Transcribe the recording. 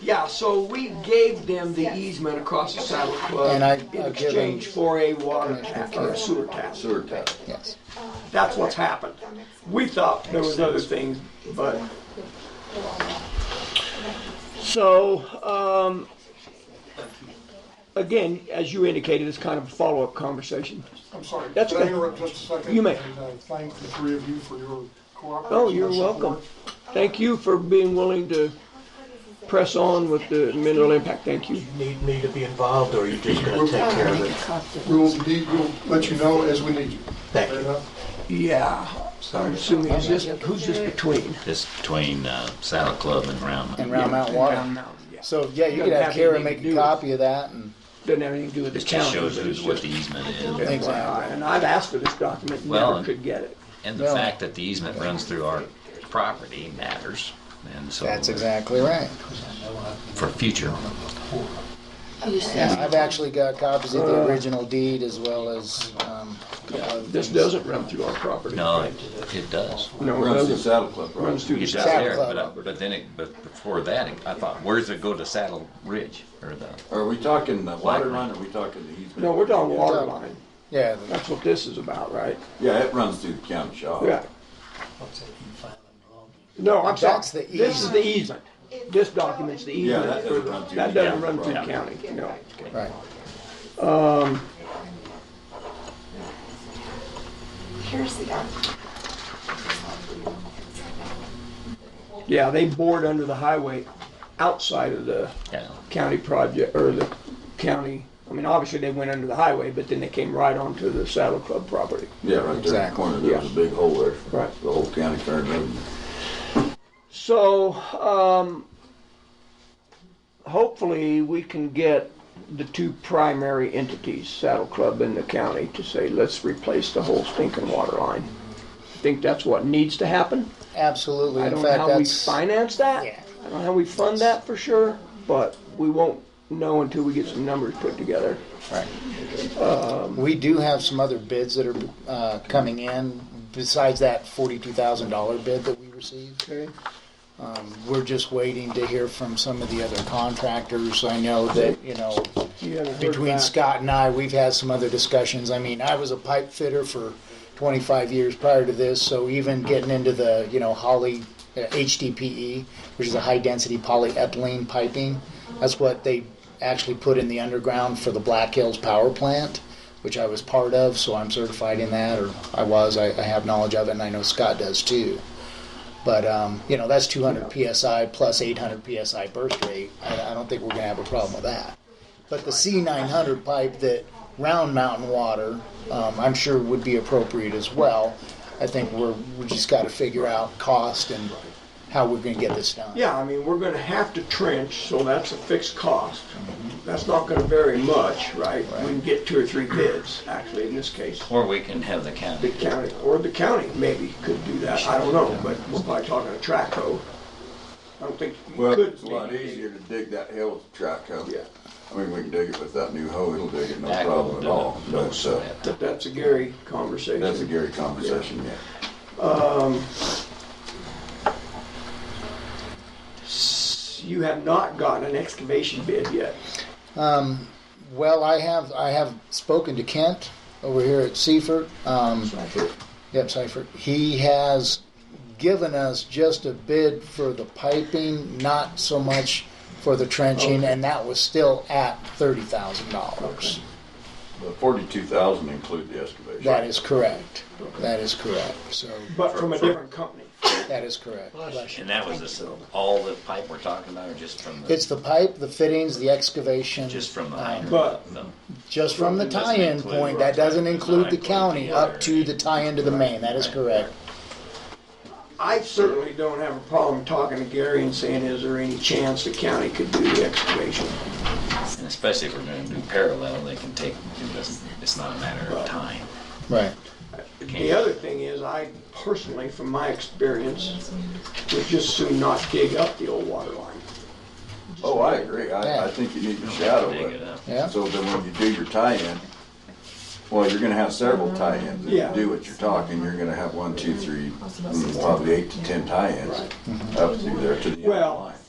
Yeah, so we gave them the easement across the Saddle Club And I- in I've given- exchange for a water tax, or a sewer tax. sewer tax. Yes. That's what's happened. We thought there was other things, but, so, um, again, as you indicated, it's kind of a follow-up conversation. I'm sorry, can That's I okay. interrupt just a second? You may. And I thank the three of you for your cooperation. Oh, you're and support. welcome. Thank you for being willing to press on with the mineral impact. Thank you. Need me to be involved, or are you just gonna take care of it? We will need, we'll let you know as we need you. Thank you. Fair enough? Yeah, I'm assuming, is this, who's this between? It's between uh, Saddle Club and Round Mountain. And Round Mountain Water. So, yeah, you could have Kara make a copy of that and. Doesn't have anything to do with the It county. just shows but it's who's what the just easement is. FYI. And I've asked for this document, Well, never could get it. And the Well- fact that the easement runs through our property matters. And so That's exactly right. for future. Yeah, I've actually got copies of Uh. the original deed as well as, um, a couple other This things. doesn't run through our property. uh, No, right? it, it does. No, it Runs the doesn't. saddle club, right? Runs through the It's south. out there, Club. but, I- but then it, but before that, it- I thought, where's it go to Saddle Ridge or the? Are we talking the water line, or are we talking the easement? No, we're talking water Yeah. line. Yeah, the- That's what this is about, right? Yeah, it runs through the county Oh. shop. Yeah. No, I'm sorry. That's the This is the easement. This document's the Yeah, easement. that for doesn't the- run through That the doesn't county run through the proper. county, no. right. Here's the document. Yeah, they bored under the highway outside of the Yeah. county project, or the county, I mean, obviously they went under the highway, but then they came right onto the Saddle Club property. Yeah, right there in the Exactly. corner, there was a big hole there. Right. The whole county turned over. So, um, hopefully we can get the two primary entities, Saddle Club and the county, to say, let's replace the whole stinking water line. I think that's what needs to happen. Absolutely. I In don't know fact, how we that's, finance that. Yeah. I don't know how we fund that for sure, but we won't know until we get some numbers put together. we do have some other bids that are, uh, coming in besides that forty-two thousand dollar bid that we received. Um, Okay. We're just waiting to hear from some of the other contractors. I know that, you know, You haven't heard between back. Scott and I, we've had some other discussions. I mean, I was a pipe fitter for 25 years prior to this, so even getting into the, you know, Holly, uh, HDPE, E, which is a high-density polyethylene piping, that's what they actually put in the underground for the Black Hills Power Plant, which I was part of, so I'm certified in that, or I was, I, I have knowledge of it, and I know Scott does too. But, um, you know, that's 200 PSI plus 800 PSI burst rate. I, I don't think we're gonna have a problem with that. But the C900 pipe that Round Mountain Water, um, I'm sure would be appropriate as well. I think we're, we just gotta figure out cost and how we're gonna get this done. Yeah, I mean, we're gonna have to trench, so that's a fixed cost. That's not gonna vary much, right? We can get two or three bids, actually, in this case. Or we can have the The county. county, or the county maybe could do that, I don't know, but we're probably talking a track hoe. I don't think you Well, could. it's a lot easier to dig that hill with a track hoe. Yeah. I mean, we can dig it with that new hoe, it'll dig it no That will problem do at all. it. No But, uh, sweat. But that's a Gary that's a conversation. Gary conversation, yeah. You have not gotten an excavation bid yet. Well, I have, I have spoken to Kent over here at Seifert. Um, Yep, Seifert. He has given us just a bid for the piping, not so much for the trenching, and that was still at $30,000. But forty-two thousand include the excavation. That is correct. That is correct. So But from a different company. that is correct. And that was this, all the pipe we're talking about, or just from the, It's the pipe, the fittings, the excavation. just from the um, hydrant? But- No. Just from the It doesn't tie-in include- point. That doesn't include the Right. county up to the tie-in to the main. That is correct. I certainly don't have a problem talking to Gary and saying, is there any chance the county could do the excavation? And especially if we're gonna do parallel, they can take, it doesn't, it's not a matter of time. Right. The other thing is, I personally, from my experience, would just soon not dig up the old water line. Oh, I agree, I, I Yeah. think you need to shadow Dig it it. up. Yeah. So then when you do your tie-in, well, you're gonna have several tie-ins. If Yeah. you do what you're talking, you're gonna have one, two, three, mm, probably eight to ten tie-ins up through there to the end of the Well, line.